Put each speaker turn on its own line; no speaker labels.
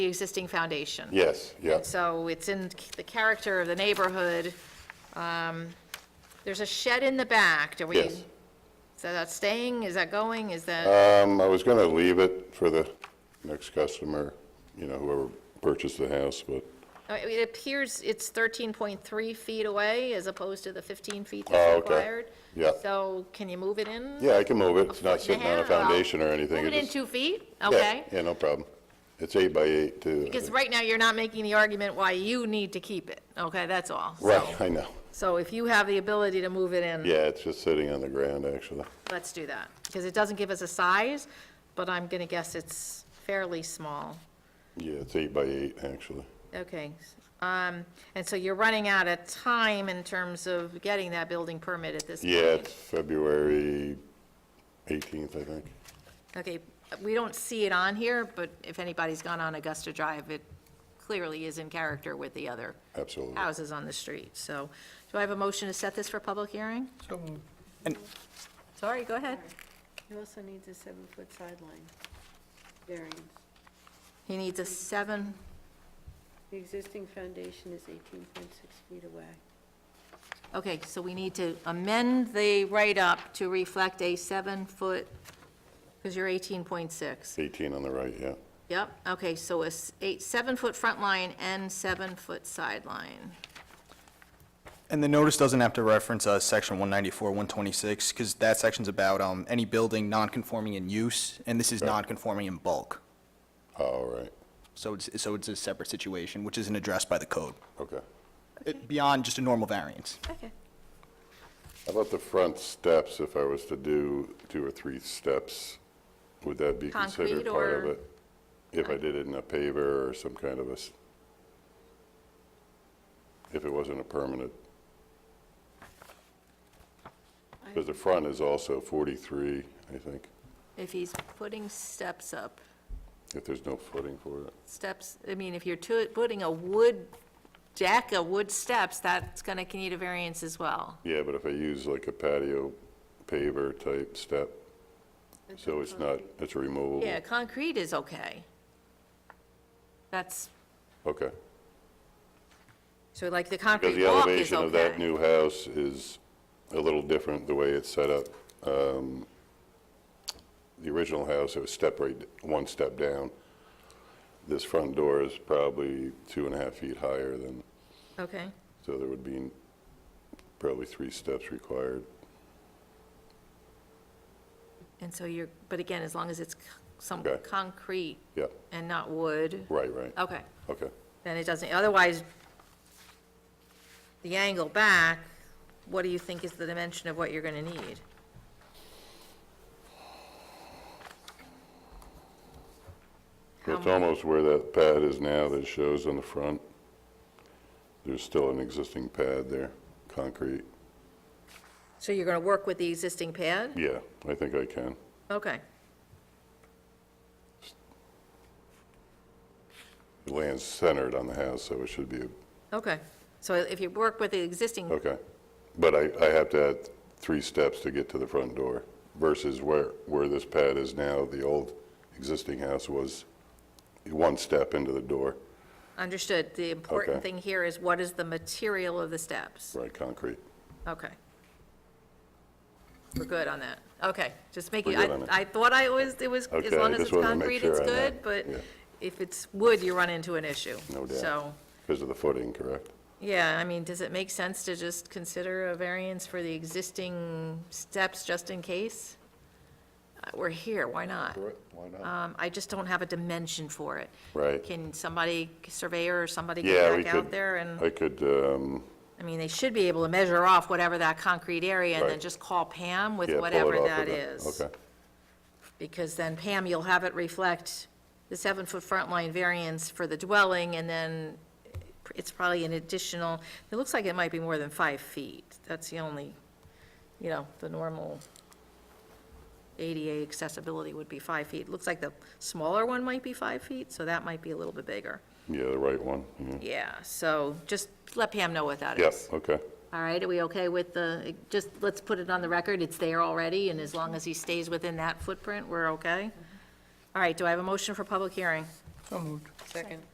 the existing foundation.
Yes, yeah.
So it's in the character of the neighborhood. Um, There's a shed in the back, do we?
Yes.
So that's staying, is that going, is that?
Um, I was gonna leave it for the next customer, you know, whoever purchased the house, but,
I mean, It appears it's 13.3 feet away as opposed to the 15 feet
Oh,
that's
okay.
required.
Yeah.
So can you move it in?
yeah, I can move it. It's
foot and
not
a
sitting on a
half? Well,
foundation or anything.
Move it in
just-
two feet?
yeah,
Okay.
Yeah, no problem. It's eight by eight, too. I
Because
think.
right now, you're not making the argument why you need to keep it, okay? That's all. So-
Right, I know.
So if you have the ability to move it in,
Yeah, it's just sitting on the ground, actually.
let's do that. Because it doesn't give us a size, but I'm going to guess it's fairly small.
Yeah, it's eight by eight, actually.
Okay. Um, And so you're running out of time in terms of getting that building permit at this point.
Yeah, it's February 18th, I think.
Okay, we don't see it on here, but if anybody's gone on Augusta Drive, it clearly is in character with the other
Absolutely.
houses on the street. So do I have a motion to set this for public hearing?
And-
Sorry, go ahead.
He also needs a seven-foot sideline variance.
He needs a seven,
The existing foundation is 18.6 feet away.
okay, so we need to amend the write-up to reflect a seven-foot, because you're 18.6.
18 on the right, yeah.
Yep, okay, so a s- eight, seven-foot front line and seven-foot sideline.
And the notice doesn't have to reference uh, Section 194, 126, because that section's about um, any building non-conforming in use, and this is non-conforming in bulk.
Oh, All right,
So it's, so it's a separate situation, which isn't addressed by the code,
okay.
It- beyond just a normal variance.
Okay.
How about the front steps, if I was to do two or three steps? Would that be considered
Concrete
part of
or-
it? If I did it in a paver or some kind of a, s- if it wasn't a permanent? Because the front is also 43, I think,
If he's putting steps up,
if there's no footing for it.
steps, I mean, if you're to- putting a wood deck, a wood steps, that's going to need a variance as well.
Yeah, but if I use like a patio paver type step, so it's not, it's removable?
Yeah, concrete is okay. That's,
Okay.
so like the
Because
concrete
the
walk is
elevation of that
okay.
new house is a little different, the way it's set up. Um, The original house, it was step right, one step down. This front door is probably two and a half feet higher than,
Okay,
so there would be probably three steps required.
and so you're, but again, as long as it's c- some
Okay.
concrete
Yeah,
and not wood,
right, right,
okay,
okay.
then it doesn't, otherwise, the angle back, what do you think is the dimension of what you're going to need?
Well, It's
How much?
almost where that pad is now that shows on the front. There's still an existing pad there, concrete.
So you're going to work with the existing pad?
Yeah, I think I can.
Okay,
The Land's centered on the house, so it should be,
okay. So if you work with the existing,
okay. But I, I have to add three steps to get to the front door versus where, where this pad is now, the old existing house was one step into the door,
understood, the important
Okay.
thing here is what is the material of the steps?
right, concrete.
Okay. We're good on that. Okay, just make it,
We're good on it.
I, I thought I was, it was, as
Okay,
long
I
as it's
just wanted to make
concrete, it's
sure on
good,
that,
but
yeah.
if it's wood, you run into an issue.
No doubt.
So,
Because of the footing, correct?
yeah, I mean, does it make sense to just consider a variance for the existing steps just in case? Uh, We're here, why not?
Why not?
Um, I just don't have a dimension for it.
Right.
Can somebody, surveyor or somebody
Yeah,
get
we
back
could.
out there and?
I could, um,
I mean, they should be able to measure off whatever that concrete area and then
Right.
just call Pam with
yeah, pull it off
whatever
of
that
the-
is.
Okay,
Because then Pam, you'll have it reflect the seven-foot front line variance for the dwelling and then it's probably an additional, it looks like it might be more than five feet. That's the only, you know, the normal ADA accessibility would be five feet. Looks like the smaller one might be five feet, so that might be a little bit bigger.
yeah, the right one, yeah.
Yeah, so just let Pam know what that is.
Yeah, okay,
All right, are we okay with the, just, let's put it on the record, it's there already, and as long as he stays within that footprint, we're okay? All right, do I have a motion for public hearing?
So moved.
Second.